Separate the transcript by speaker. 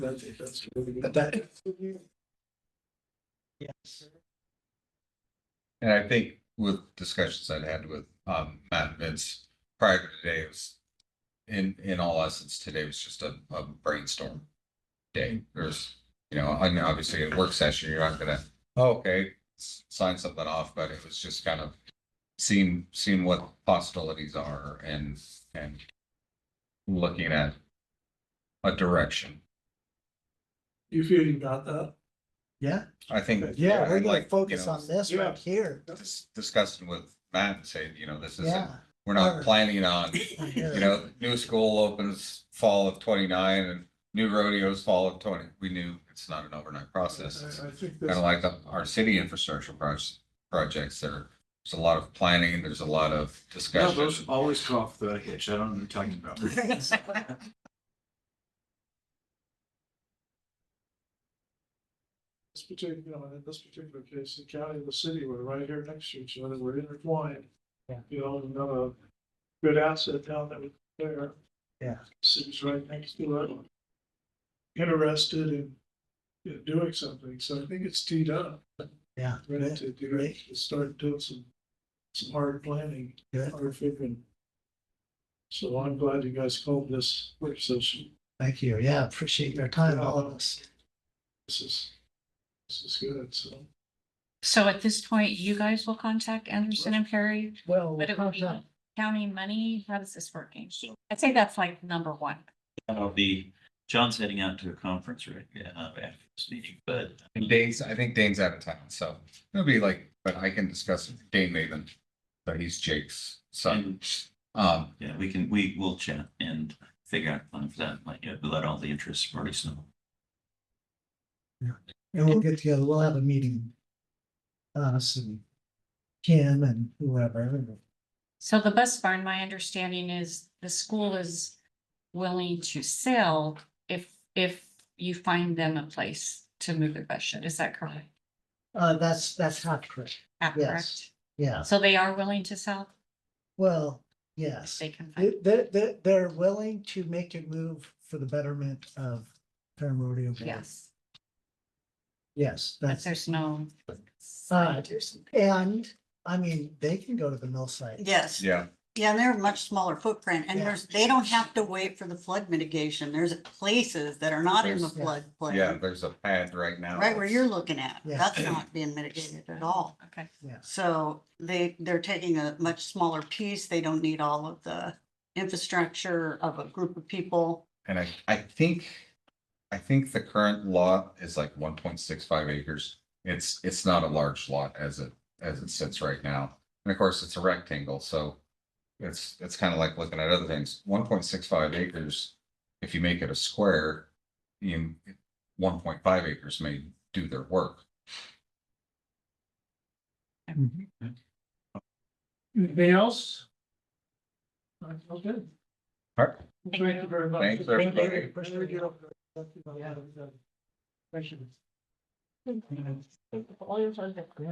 Speaker 1: That's, that's. But that.
Speaker 2: Yes.
Speaker 3: And I think with discussions I'd had with um Matt and Vince prior to today, it was. In in all essence, today was just a a brainstorm day. There's, you know, and obviously a work session, you're not gonna, "Oh, okay, s- sign something off, but it was just kind of. Seeing seeing what possibilities are and and looking at a direction.
Speaker 1: You feel you got that?
Speaker 2: Yeah,
Speaker 3: I think.
Speaker 2: yeah, we're
Speaker 3: I'd
Speaker 2: gonna
Speaker 3: like, you
Speaker 2: focus
Speaker 3: know,
Speaker 2: on this right here.
Speaker 3: dis- Discussing with Matt and saying, you know, this isn't,
Speaker 2: Yeah.
Speaker 3: we're not
Speaker 2: Or-
Speaker 3: planning on
Speaker 2: right
Speaker 3: You
Speaker 2: here.
Speaker 3: know, new school opens fall of twenty-nine and new rodeos fall of twenty. We knew it's not an overnight process. It's
Speaker 1: I- I think
Speaker 3: Kind
Speaker 1: that's-
Speaker 3: of like our city infrastructure projects, projects there. There's a lot of planning, there's a lot of
Speaker 4: No,
Speaker 3: discussion.
Speaker 4: those always come off the hitch. I don't know what you're talking about.
Speaker 1: This particular, you know, in this particular case, the county and the city were right here next to each other, we're intertwined.
Speaker 2: Yeah.
Speaker 1: You know, another good asset down that was there.
Speaker 2: Yeah.
Speaker 1: City's right next to it. Interested in, you know, doing something, so I think it's teed up,
Speaker 2: Yeah.
Speaker 1: ready
Speaker 2: good,
Speaker 1: to do,
Speaker 2: great,
Speaker 1: to start doing some, some hard planning,
Speaker 2: Good,
Speaker 1: hard figuring. So I'm glad you guys called this work session.
Speaker 2: thank you. Yeah, appreciate your time, all of us.
Speaker 1: This is, this is good, so.
Speaker 5: So at this point, you guys will contact Anderson and Perry,
Speaker 2: Well,
Speaker 5: but it will be
Speaker 2: how's
Speaker 5: counting money. How is this working? I'd say that's like number one.
Speaker 6: That'll be, John's heading out to a conference right yeah, uh, after this meeting, but
Speaker 3: And Dane's, I think Dane's out of town, so it'll be like, but I can discuss it. Dane Maven. So he's Jake's son. Um,
Speaker 6: yeah, we can, we will chat and figure out a plan for that, like, you know, let all the interests parties know.
Speaker 2: And we'll get together, we'll have a meeting. Us and Kim and whoever.
Speaker 5: So the bus barn, my understanding is the school is willing to sell if, if you find them a place to move their bus shed. Is that correct?
Speaker 2: Uh, that's, that's not correct.
Speaker 5: Ah,
Speaker 2: Yes.
Speaker 5: Correct.
Speaker 2: Yeah,
Speaker 5: So they are willing to sell?
Speaker 2: well, yes.
Speaker 5: They can find,
Speaker 2: They, they, they- they're willing to make a move for the betterment of Fair Rodeo. Board.
Speaker 5: yes,
Speaker 2: Yes,
Speaker 5: but
Speaker 2: that's,
Speaker 5: there's no.
Speaker 2: Uh, and, I mean, they can go to the mill site.
Speaker 7: Yes,
Speaker 3: yeah,
Speaker 7: yeah, and they're a much smaller footprint and
Speaker 2: Yeah.
Speaker 7: there's, they don't have to wait for the flood mitigation. There's places that are not in the
Speaker 3: There's-
Speaker 2: Yeah.
Speaker 7: flood. plain,
Speaker 3: yeah, there's a pad right now.
Speaker 7: Right where you're
Speaker 3: that's-
Speaker 7: looking at.
Speaker 2: Yeah.
Speaker 7: That's not being mitigated at all.
Speaker 5: Okay.
Speaker 2: Yes,
Speaker 7: So they, they're taking a much smaller piece. They don't need all of the infrastructure of a group of people.
Speaker 3: And I, I think, I think the current lot is like one point six five acres. It's, it's not a large lot as it, as it sits right now. And of course, it's a rectangle, so it's, it's kind of like looking at other things. One point six five acres, if you make it a square, you, one point five acres may do their work.
Speaker 1: Anything else? I feel good.
Speaker 3: All right.
Speaker 1: Thank you very much.
Speaker 3: Thanks, everybody.
Speaker 1: Appreciate it.
Speaker 2: Yeah.